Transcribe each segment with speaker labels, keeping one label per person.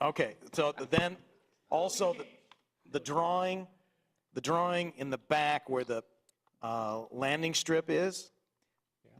Speaker 1: Okay, so then, also, the- the drawing, the drawing in the back where the uh, landing strip is,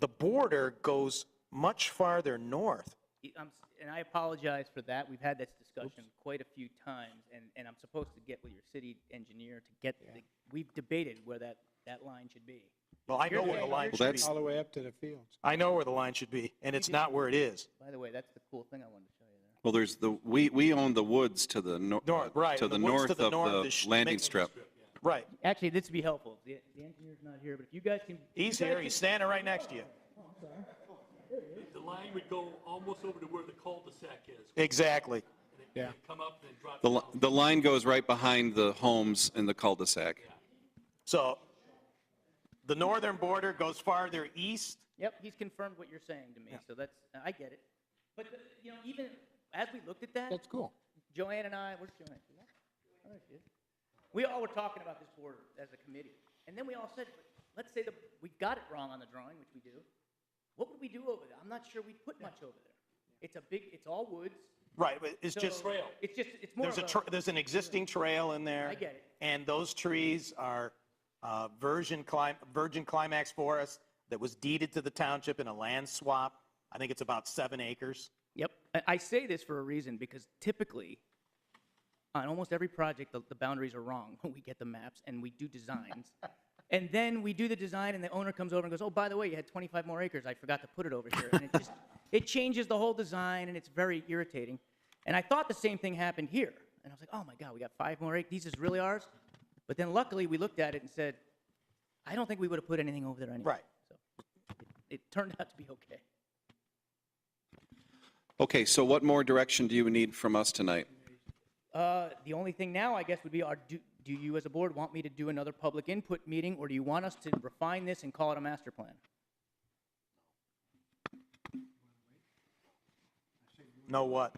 Speaker 1: the border goes much farther north.
Speaker 2: Y- I'm s- And I apologize for that. We've had this discussion quite a few times, and, and I'm supposed to get with your city engineer to get, the- we've debated where that, that line should be.
Speaker 1: Well, I know where the line should be.
Speaker 3: All the way up to the fields.
Speaker 1: I know where the line should be, and it's not where it is.
Speaker 2: By the way, that's the cool thing I wanted to show you there.
Speaker 4: Well, there's the, we, we own the woods to the nor-
Speaker 1: North, right,
Speaker 4: To
Speaker 1: and
Speaker 4: the
Speaker 1: the woods
Speaker 4: north
Speaker 1: to
Speaker 4: of
Speaker 1: the north
Speaker 4: the
Speaker 1: is sh-
Speaker 4: landing
Speaker 1: makes-
Speaker 4: strip.
Speaker 1: Right.
Speaker 2: Actually, this would be helpful. The the engineer's not here, but if you guys can. if you
Speaker 1: He's
Speaker 2: guys
Speaker 1: here,
Speaker 2: can-
Speaker 1: he's standing right next to you.
Speaker 5: The line would go almost over to where the cul-de-sac is,
Speaker 1: Exactly.
Speaker 3: Yeah.
Speaker 5: come up and drop
Speaker 4: The, li- the line goes right behind the homes in the cul-de-sac.
Speaker 1: So, the northern border goes farther east.
Speaker 2: Yep, he's confirmed what you're saying to me, so that's, I get it. But, uh, you know, even as we looked at that,
Speaker 3: That's cool.
Speaker 2: Joanne and I, where's Joanne? Is that- oh, there she is. We all were talking about this board as a committee, and then we all said, let's say that we got it wrong on the drawing, which we do. What would we do over there? I'm not sure we'd put much over there. It's a big, it's all woods.
Speaker 1: Right, but it's just,
Speaker 2: so It's just, it's more
Speaker 1: there's
Speaker 2: of
Speaker 1: a, tr- there's an existing trail in there.
Speaker 2: I get it.
Speaker 1: And those trees are uh, virgin clim, virgin climax forest that was deeded to the township in a land swap. I think it's about seven acres.
Speaker 2: Yep. I- I say this for a reason because typically, on almost every project, the, the boundaries are wrong when we get the maps and we do designs. and then we do the design and the owner comes over and goes, oh, by the way, you had 25 more acres. I forgot to put it over here. And it just, it changes the whole design and it's very irritating. And I thought the same thing happened here. And I was like, oh my God, we got five more acres. These is really ours? But then luckily we looked at it and said, I don't think we would have put anything over there anyway.
Speaker 1: Right.
Speaker 2: So it, it turned out to be okay.
Speaker 4: Okay, so what more direction do you need from us tonight?
Speaker 2: Uh, the only thing now, I guess, would be, are, do, do you as a board want me to do another public input meeting, or do you want us to refine this and call it a master plan?
Speaker 1: Know what?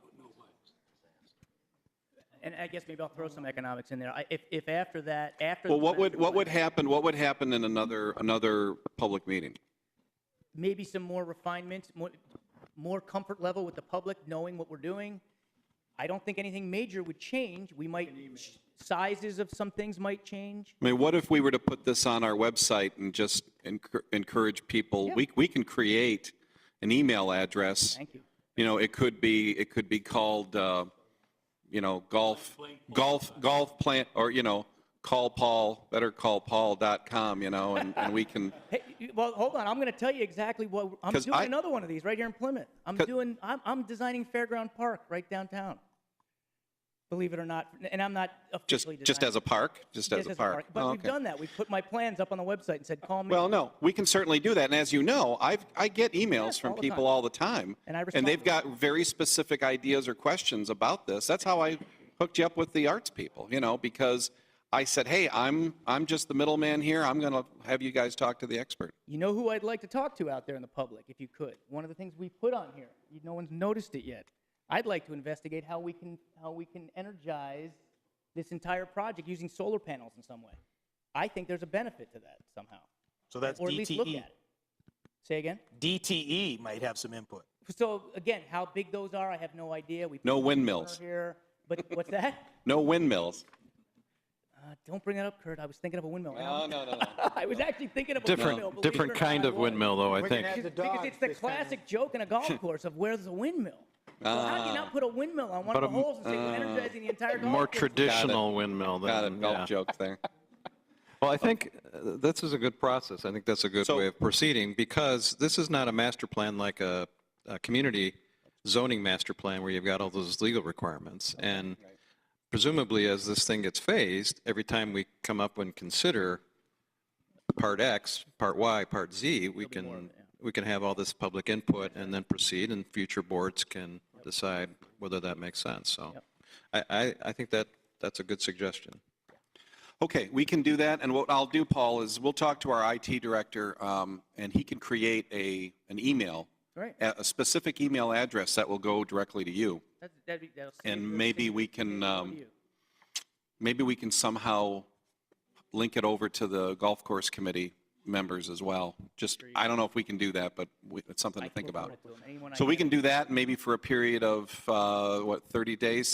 Speaker 2: And I guess maybe I'll throw some economics in there. I, if, if after that, after.
Speaker 4: Well,
Speaker 2: the
Speaker 4: what would,
Speaker 2: master
Speaker 4: what would
Speaker 2: plan,
Speaker 4: happen, what would happen in another, another public meeting?
Speaker 2: Maybe some more refinements, more, more comfort level with the public, knowing what we're doing. I don't think anything major would change. We might, sizes of some things might change.
Speaker 4: I mean, what if we were to put this on our website and just encour- encourage people? We, we can create an email address.
Speaker 2: Thank you.
Speaker 4: You know, it could be, it could be called, uh, you know, golf, golf, golf plant, or, you know, call Paul, bettercallpaul.com, you know, and, and we can,
Speaker 2: Hey, you- well, hold on. I'm going to tell you exactly what I'm
Speaker 4: 'Cause
Speaker 2: doing.
Speaker 4: I-
Speaker 2: another one of these right here in Plymouth. I'm
Speaker 4: 'Cause-
Speaker 2: doing. I'm, I'm designing Fairground Park right downtown. Believe it or not, and I'm not
Speaker 4: just,
Speaker 2: officially
Speaker 4: just as a
Speaker 2: designing-
Speaker 4: park, just as a park.
Speaker 2: But
Speaker 4: Oh,
Speaker 2: we've
Speaker 4: okay.
Speaker 2: done that. We've put my plans up on the website and said, "Call me."
Speaker 4: Well, no, we can certainly do that. And as you know, I've, I get emails
Speaker 2: all
Speaker 4: from
Speaker 2: the
Speaker 4: people
Speaker 2: time.
Speaker 4: all the time.
Speaker 2: And I
Speaker 4: And they've
Speaker 2: respond.
Speaker 4: got very specific ideas or questions about this. That's how I hooked you up with the arts people, you know, because I said, hey, I'm, I'm just the middleman here. I'm going to have you guys talk to the expert.
Speaker 2: You know who I'd like to talk to out there in the public, if you could. One of the things we put on here, you- no one's noticed it yet. I'd like to investigate how we can how we can energize this entire project using solar panels in some way. I think there's a benefit to that somehow.
Speaker 1: So that's E.
Speaker 2: or at least look at
Speaker 1: DTE.
Speaker 2: it. Say again?
Speaker 1: DTE E might have some input.
Speaker 2: So again, how big those are, I have no idea. We
Speaker 4: No
Speaker 2: put a
Speaker 4: windmills.
Speaker 2: corner Here, but what's that?
Speaker 4: No windmills.
Speaker 2: Uh, don't bring that up, Kurt. I was thinking of a windmill. and
Speaker 4: No,
Speaker 2: I'm-
Speaker 4: no, no, no.
Speaker 2: I was actually thinking of a windmill.
Speaker 6: Different,
Speaker 2: believe it
Speaker 6: different
Speaker 2: or
Speaker 6: kind
Speaker 2: not, I
Speaker 6: of
Speaker 2: was.
Speaker 6: windmill, though, I
Speaker 3: We're gonna
Speaker 6: think.
Speaker 3: have to
Speaker 2: Because
Speaker 3: dodge
Speaker 2: it's the
Speaker 3: this kind of-
Speaker 2: classic joke in a golf course of where's the windmill? Well, how do you not put a windmill on one of
Speaker 6: Uh, But
Speaker 2: the
Speaker 6: a m- uh,
Speaker 2: holes and say we're energizing the entire golf
Speaker 6: More
Speaker 2: course?
Speaker 6: traditional windmill
Speaker 4: Got it.
Speaker 6: than, yeah.
Speaker 4: Golf jokes there.
Speaker 6: Well, I think uh, this is a good process. I think that's a good
Speaker 4: So-
Speaker 6: way of proceeding because this is not a master plan like a, a community zoning master plan where you've got all those legal requirements. And presumably, as this thing gets phased, every time we come up and consider part X, part Y, part Z, we can, we can have all this public input and then proceed and future boards can decide whether that makes sense. So I, I, I think that, that's a good suggestion.
Speaker 4: Okay, we can do that, and what I'll do, Paul, is we'll talk to our IT director, um, and he can create a, an email.
Speaker 2: Right.
Speaker 4: A a specific email address that will go directly to you.
Speaker 2: That's, that'd be, that'll save
Speaker 4: And
Speaker 2: you-
Speaker 4: maybe
Speaker 2: save
Speaker 4: we
Speaker 2: you-
Speaker 4: can,
Speaker 2: save you
Speaker 4: um,
Speaker 2: you.
Speaker 4: Maybe we can somehow link it over to the golf course committee members as well. Just, I don't know if we can do that, but we- it's something to think
Speaker 2: We'll forward
Speaker 4: about.
Speaker 2: it to 'em. Anyone I
Speaker 4: So we can do that, maybe for a period of, uh, what, 30 days,